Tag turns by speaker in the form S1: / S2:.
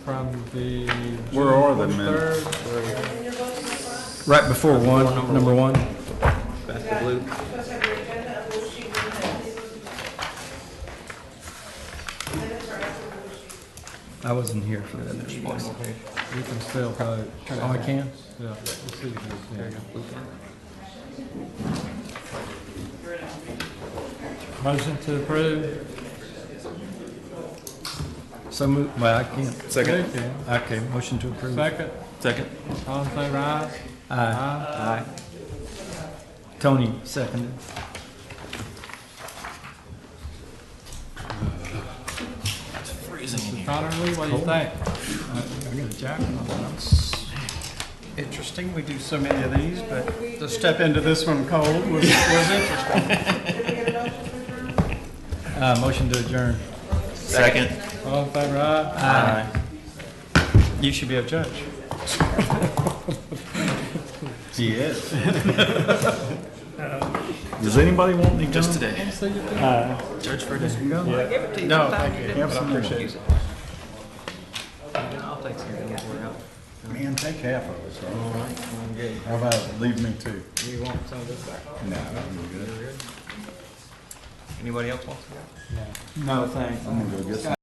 S1: from the.
S2: Where are the
S1: June
S2: minutes?
S1: 23rd.
S2: Right before one, number one.
S3: That's the blue.
S2: I wasn't here for the other one.
S1: You can still vote.
S2: Oh, I can?
S1: Yeah, we'll see you guys. Motion to approve?
S2: So move, well, I can't.
S1: You
S2: Second.
S1: can.
S2: Okay, motion to approve.
S1: Second,
S3: Second.
S1: all in favor, aye?
S2: Aye.
S1: Aye.
S2: Aye. Tony, seconded.
S1: Connor, Lee, what do you think?
S4: Interesting, we do so many of these, but to step into this one cold was, was interesting.
S2: Uh, motion to adjourn.
S3: Second.
S1: All in favor, aye?
S2: Aye.
S4: You should be a judge.
S2: He is. Does anybody want any
S3: Just today. Judge Ferguson.
S4: No, thank you. but I appreciate it.
S2: Man, take half of it, sir. How about leave me two?
S3: You want some of this back?
S2: No, I'm good.
S3: Anybody else want some?
S2: No, thanks. I'm gonna go get some.